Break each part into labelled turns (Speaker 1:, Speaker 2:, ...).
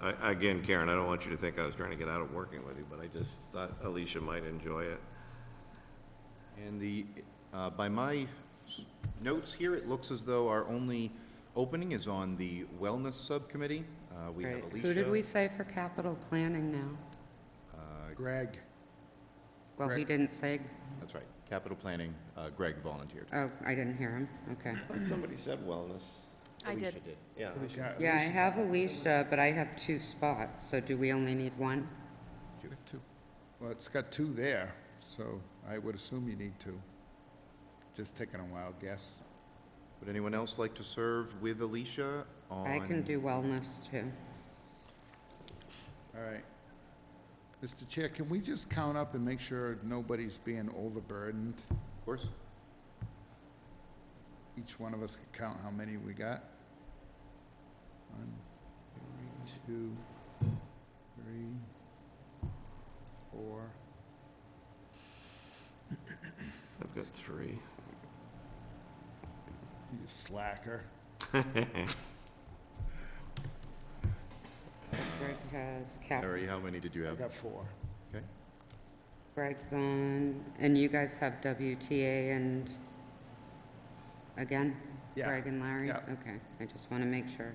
Speaker 1: I- Again, Karen, I don't want you to think I was trying to get out of working with you, but I just thought Alicia might enjoy it.
Speaker 2: And the, uh, by my s- notes here, it looks as though our only opening is on the Wellness Subcommittee. Uh, We have
Speaker 3: Right.
Speaker 2: Alicia.
Speaker 3: Who did we say for capital planning now?
Speaker 4: Greg,
Speaker 3: Well, he
Speaker 4: Greg.
Speaker 3: didn't say,
Speaker 2: That's right, Capital Planning, uh, Greg volunteered.
Speaker 3: oh, I didn't hear him, okay.
Speaker 1: But Somebody said wellness.
Speaker 5: I
Speaker 2: Alicia
Speaker 5: did.
Speaker 1: Yeah.
Speaker 4: yeah,
Speaker 3: Yeah, I have Alicia, but I have two spots, so do we only need one?
Speaker 4: well, it's got two there, so I would assume you need two. Just taking a wild guess.
Speaker 2: Would anyone else like to serve with Alicia on?
Speaker 3: I can do wellness too.
Speaker 4: All right. Mr. Chair, can we just count up and make sure nobody's being overburdened?
Speaker 2: Of course.
Speaker 4: Each one of us can count how many we got. One, two, three, four.
Speaker 1: I've got three.
Speaker 4: You slacker.
Speaker 3: Greg has
Speaker 2: Harry,
Speaker 3: capital,
Speaker 2: how many did you
Speaker 4: I
Speaker 2: have?
Speaker 4: got four.
Speaker 2: Okay.
Speaker 3: Greg's on, and you guys have WTA and, again?
Speaker 4: Yeah.
Speaker 3: Greg and Larry?
Speaker 4: Yeah.
Speaker 3: Okay, I just want to make sure,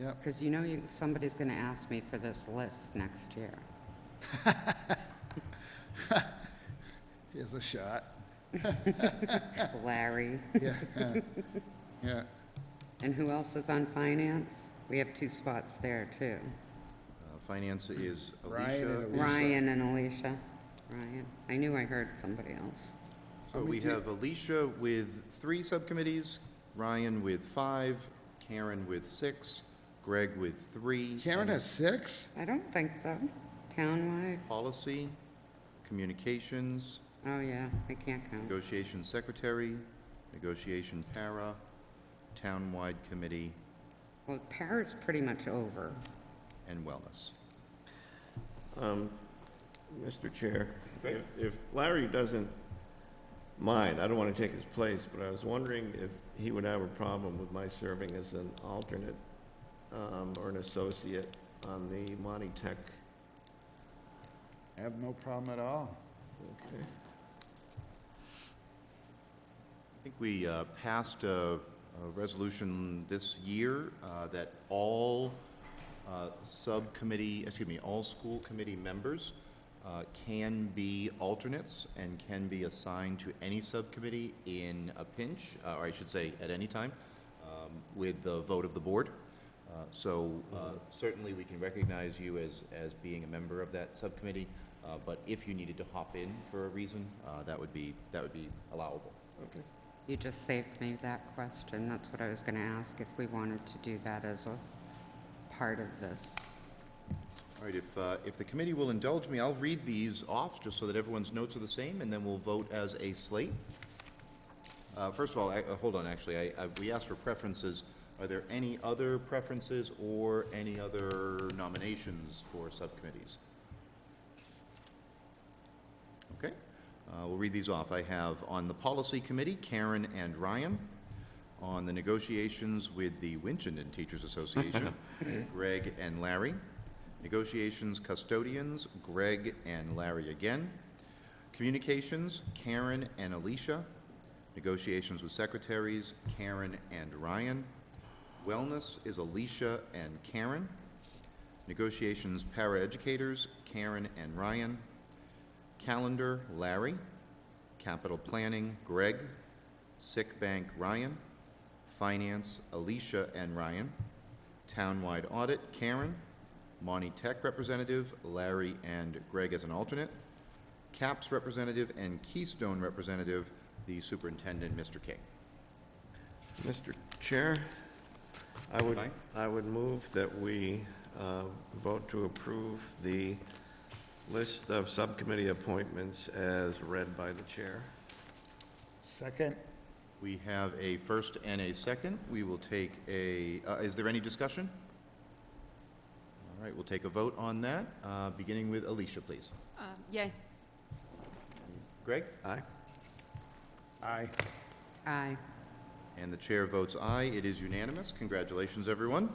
Speaker 4: Yep.
Speaker 3: because you know you- somebody's going to ask me for this list next year.
Speaker 4: Here's a shot.
Speaker 3: Larry,
Speaker 4: Yeah. Yeah.
Speaker 3: and who else is on finance? We have two spots there too.
Speaker 2: Uh, Finance is
Speaker 4: Ryan and
Speaker 2: Alicia.
Speaker 4: Alicia.
Speaker 3: Ryan and Alicia. Ryan. I knew I heard somebody else.
Speaker 2: So we have Alicia with three subcommittees, Ryan with five, Karen with six, Greg with three.
Speaker 4: Karen
Speaker 2: and
Speaker 4: has six?
Speaker 3: I don't think so. Townwide?
Speaker 2: Policy, Communications,
Speaker 3: Oh, yeah, I can't count.
Speaker 2: Negotiation Secretary, Negotiation Para, Townwide Committee,
Speaker 3: Well, Para's pretty much over.
Speaker 2: and Wellness.
Speaker 1: Um, Mr. Chair, if if Larry doesn't mind, I don't want to take his place, but I was wondering if he would have a problem with my serving as an alternate um, or an associate on the Monty Tech.
Speaker 4: I have no problem at all.
Speaker 1: Okay.
Speaker 2: I think we uh, passed a a resolution this year uh, that all uh, subcommittee, excuse me, all school committee members uh, can be alternates and can be assigned to any subcommittee in a pinch, uh, or I should say, at any time, um, with the vote of the board. Uh, So uh, certainly, we can recognize you as, as being a member of that subcommittee, uh, but if you needed to hop in for a reason, uh, that would be, that would be allowable.
Speaker 1: Okay.
Speaker 3: You just saved me that question. That's what I was going to ask, if we wanted to do that as a part of this.
Speaker 2: All right, if, uh, if the committee will indulge me, I'll read these off, just so that everyone's notes are the same, and then we'll vote as a slate. Uh, First of all, I- uh, hold on, actually, I- I- we asked for preferences. Are there any other preferences or any other nominations for subcommittees? Okay, uh, we'll read these off. I have on the Policy Committee, Karen and Ryan. On the negotiations with the Winchendon Teachers Association, Greg and Larry. Negotiations Custodians, Greg and Larry again. Communications, Karen and Alicia. Negotiations with Secretaries, Karen and Ryan. Wellness is Alicia and Karen. Negotiations Paraeducators, Karen and Ryan. Calendar, Larry. Capital Planning, Greg. Sick Bank, Ryan. Finance, Alicia and Ryan. Townwide Audit, Karen. Monty Tech Representative, Larry and Greg as an alternate. CAPS Representative and Keystone Representative, the Superintendent, Mr. King.
Speaker 1: Mr. Chair, I would,
Speaker 2: Aye.
Speaker 1: I would move that we uh, vote to approve the list of subcommittee appointments as read by the chair.
Speaker 4: Second?
Speaker 2: We have a first and a second. We will take a, uh, is there any discussion? All right, we'll take a vote on that, uh, beginning with Alicia, please.
Speaker 5: Um, Yay.
Speaker 2: Greg?
Speaker 1: Aye.
Speaker 4: Aye.
Speaker 3: Aye.
Speaker 2: And the chair votes aye. It is unanimous. Congratulations, everyone.